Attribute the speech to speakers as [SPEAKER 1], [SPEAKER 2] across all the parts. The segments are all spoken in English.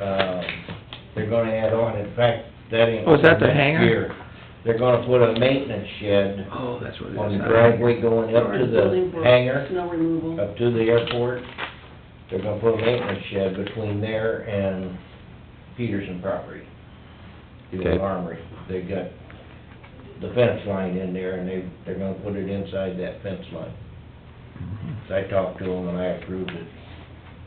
[SPEAKER 1] um, they're gonna add on, in fact, that ain't.
[SPEAKER 2] Oh, is that the
[SPEAKER 1] next
[SPEAKER 2] hangar?
[SPEAKER 1] year. They're gonna put a maintenance shed
[SPEAKER 2] Oh, that's what it is.
[SPEAKER 1] on the driveway going up to
[SPEAKER 3] Building
[SPEAKER 1] the
[SPEAKER 3] for
[SPEAKER 1] hangar,
[SPEAKER 3] Snow removal.
[SPEAKER 1] up to the airport. They're gonna put a maintenance shed between there and Peterson property. The
[SPEAKER 4] Okay.
[SPEAKER 1] old armory, they got the fence line in there, and they, they're gonna put it inside that fence line.
[SPEAKER 2] Mm-hmm.
[SPEAKER 1] So I talked to them and I approved it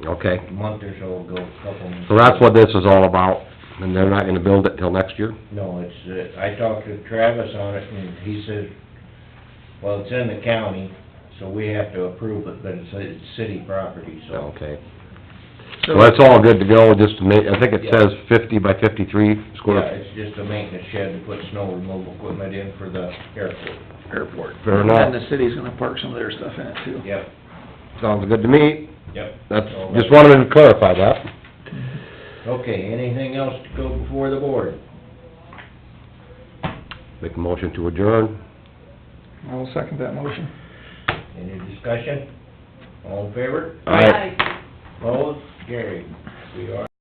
[SPEAKER 4] Okay,
[SPEAKER 1] a month or so ago, a couple months.
[SPEAKER 4] so that's what this is all about, and they're not gonna build it till next year?
[SPEAKER 1] No, it's, uh, I talked to Travis on it, and he says, well, it's in the county, so we have to approve it, but it's, it's city property, so.
[SPEAKER 4] Okay, so that's all good to go, just to make, I think it says fifty by fifty-three
[SPEAKER 1] Yeah,
[SPEAKER 4] square.
[SPEAKER 1] it's just a maintenance shed to put snow removal equipment in for the airport.
[SPEAKER 2] Airport.
[SPEAKER 4] Fair enough.
[SPEAKER 2] And the city's gonna park some of their stuff in it too.
[SPEAKER 1] Yep,
[SPEAKER 4] Sounds good to me,
[SPEAKER 1] yep.
[SPEAKER 4] that's,
[SPEAKER 1] all
[SPEAKER 4] just
[SPEAKER 1] right.
[SPEAKER 4] wanted to clarify that.
[SPEAKER 1] Okay, anything else to go before the board?
[SPEAKER 4] Make a motion to adjourn.
[SPEAKER 2] I will second that motion.
[SPEAKER 1] Any discussion? All in favor?
[SPEAKER 4] All right.
[SPEAKER 3] Aye.
[SPEAKER 1] Opposed? Carried. We are.